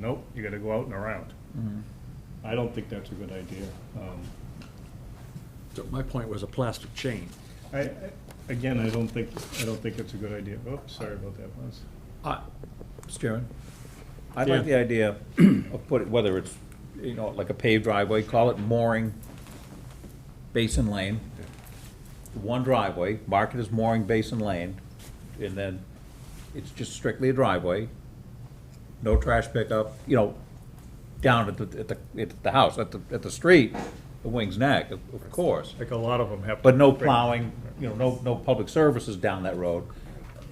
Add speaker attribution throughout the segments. Speaker 1: Nope, you gotta go out and around. I don't think that's a good idea. Um,
Speaker 2: So My point was a plastic chain.
Speaker 1: I, I- again, I don't think, I don't think it's a good idea. Oops, sorry about that, Buzz.
Speaker 2: I- Mr. Chairman?
Speaker 3: I
Speaker 1: Yeah.
Speaker 3: like the idea of put, whether it's, you know, like a paved driveway, call it mooring basin lane. One driveway, mark it as mooring basin lane, and then it's just strictly a driveway. No trash pickup, you know, down at the, at the, at the house, at the, at the street, the Wings Neck, of of course.
Speaker 1: Like a lot of them have.
Speaker 3: But no plowing, you know, no, no public services down that road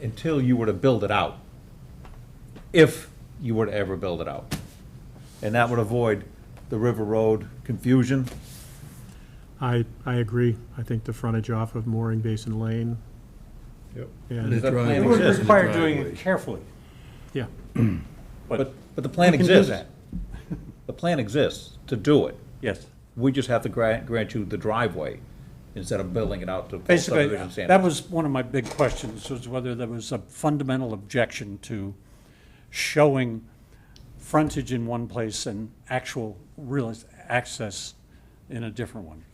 Speaker 3: until you were to build it out. If you were to ever build it out. And that would avoid the River Road confusion.
Speaker 4: I, I agree. I think the frontage off of Mooring Basin Lane,
Speaker 1: Yep.
Speaker 4: and,
Speaker 3: That plan
Speaker 5: It would
Speaker 3: exists.
Speaker 5: require doing it carefully.
Speaker 4: yeah.
Speaker 3: But, but the plan
Speaker 5: We can do
Speaker 3: exists.
Speaker 5: that.
Speaker 3: The plan exists to do it.
Speaker 5: Yes.
Speaker 3: We just have to grant, grant you the driveway instead of building it out to full
Speaker 5: Basically,
Speaker 3: subdivision
Speaker 5: that
Speaker 3: standard.
Speaker 5: was one of my big questions, was whether there was a fundamental objection to showing frontage in one place and actual real access in a different one.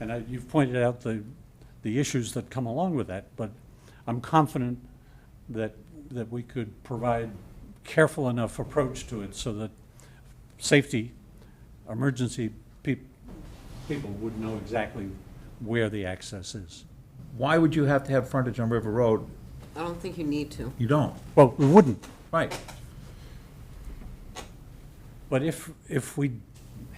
Speaker 5: And I- you've pointed out the, the issues that come along with that, but I'm confident that, that we could provide careful enough approach to it so that safety, emergency peop- people would know exactly where the access is.
Speaker 3: Why would you have to have frontage on River Road?
Speaker 6: I don't think you need to.
Speaker 3: You don't,
Speaker 5: Well, we wouldn't,
Speaker 3: right.
Speaker 5: but if, if we,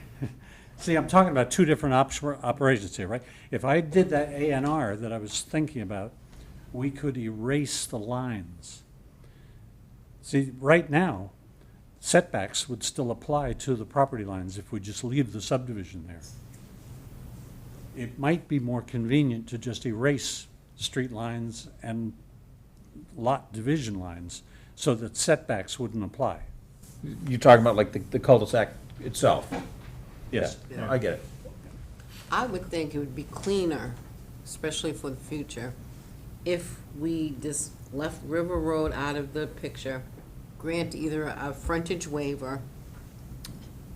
Speaker 5: see, I'm talking about two different ops- operations here, right? If I did that A and R that I was thinking about, we could erase the lines. See, right now, setbacks would still apply to the property lines if we just leave the subdivision there. It might be more convenient to just erase street lines and lot division lines so that setbacks wouldn't apply.
Speaker 3: You're talking about like the- the cul-de-sac itself.
Speaker 5: Yes.
Speaker 3: Yeah, I get it.
Speaker 6: I would think it would be cleaner, especially for the future, if we just left River Road out of the picture, grant either a frontage waiver,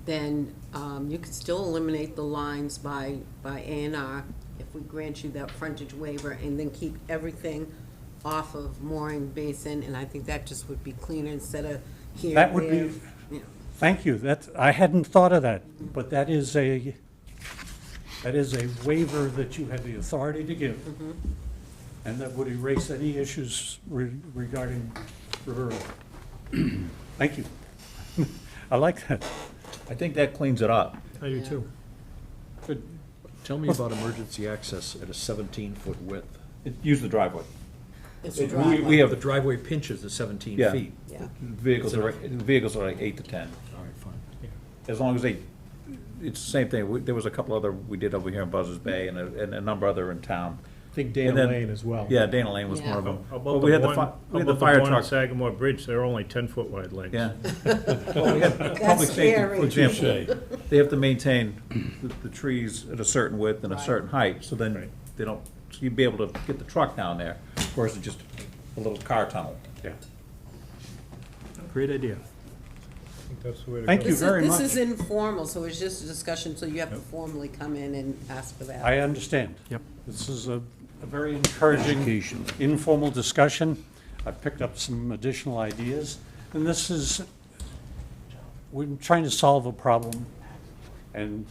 Speaker 6: then um, you could still eliminate the lines by, by A and R if we grant you that frontage waiver and then keep everything off of Mooring Basin, and I think that just would be cleaner instead of here,
Speaker 5: That would be-
Speaker 6: there, you know.
Speaker 5: Thank you. That, I hadn't thought of that, but that is a, that is a waiver that you have the authority to give. And that would erase any issues re- regarding River Road. Thank you. I like that.
Speaker 3: I think that cleans it up.
Speaker 4: I do too.
Speaker 2: Tell me about emergency access at a 17-foot width.
Speaker 3: Use the driveway.
Speaker 6: It's
Speaker 2: We-
Speaker 6: driveway.
Speaker 2: We have the driveway pinches at 17
Speaker 3: Yeah.
Speaker 2: feet.
Speaker 6: Yeah.
Speaker 3: Vehicles are, vehicles are like eight to 10,
Speaker 2: All right, fine.
Speaker 3: as long as they, it's the same thing. We- There was a couple other we did over here in Buzzards Bay and a, and a number other in town.
Speaker 1: I think
Speaker 3: And
Speaker 1: Dana
Speaker 3: then-
Speaker 1: Lane as well.
Speaker 3: Yeah, Dana Lane was one of
Speaker 6: Yeah.
Speaker 3: them.
Speaker 1: How
Speaker 3: But
Speaker 1: About
Speaker 3: we
Speaker 1: the
Speaker 3: had the,
Speaker 1: one,
Speaker 3: fi-
Speaker 1: how
Speaker 3: we had the
Speaker 1: about the
Speaker 3: fire
Speaker 1: one on
Speaker 3: truck.
Speaker 1: Sagamore Bridge, they're only ten-foot wide lanes.
Speaker 3: Yeah. Well, we had Public safety,
Speaker 6: scary.
Speaker 3: for example, they have to maintain the, the trees at a certain width and a
Speaker 6: Right.
Speaker 3: certain height, so
Speaker 1: Right.
Speaker 3: then they don't, so you'd be able to get the truck down there, versus just a little car tunnel.
Speaker 5: Yeah.
Speaker 4: Great idea.
Speaker 1: I think that's the way to
Speaker 5: Thank
Speaker 1: go.
Speaker 5: you
Speaker 6: This is-
Speaker 5: very much.
Speaker 6: This is informal, so it's just a discussion, so you have to formally come in and ask for that.
Speaker 5: I understand.
Speaker 4: Yep.
Speaker 5: This is a, a very encouraging informal discussion. I've picked up some additional ideas, and this is, we're trying to solve a problem, and,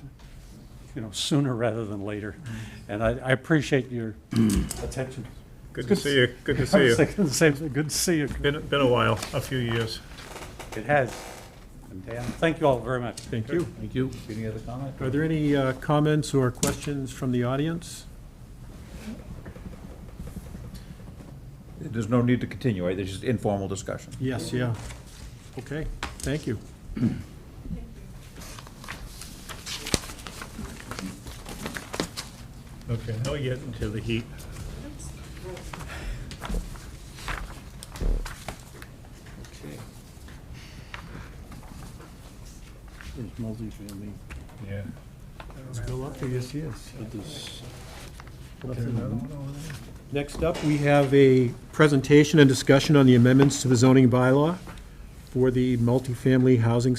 Speaker 5: you know, sooner rather than later. And I, I appreciate your attention.
Speaker 1: Good to see you, good to see you.
Speaker 5: Same thing. Good to see you.
Speaker 1: Been, been a while, a few years.
Speaker 5: It has. And Dan, thank you all very much.
Speaker 4: Thank you.
Speaker 3: Thank you. Any other comment?
Speaker 4: Are there any uh, comments or questions from the audience?
Speaker 3: There's no need to continue, right? There's just informal discussion.
Speaker 4: Yes, yeah. Okay, thank you.
Speaker 1: Okay, now we get into the heat.
Speaker 7: There's multifamily,
Speaker 1: Yeah.
Speaker 7: but there's
Speaker 4: Next up, we have a presentation and discussion on the amendments to the zoning bylaw. for the multifamily housing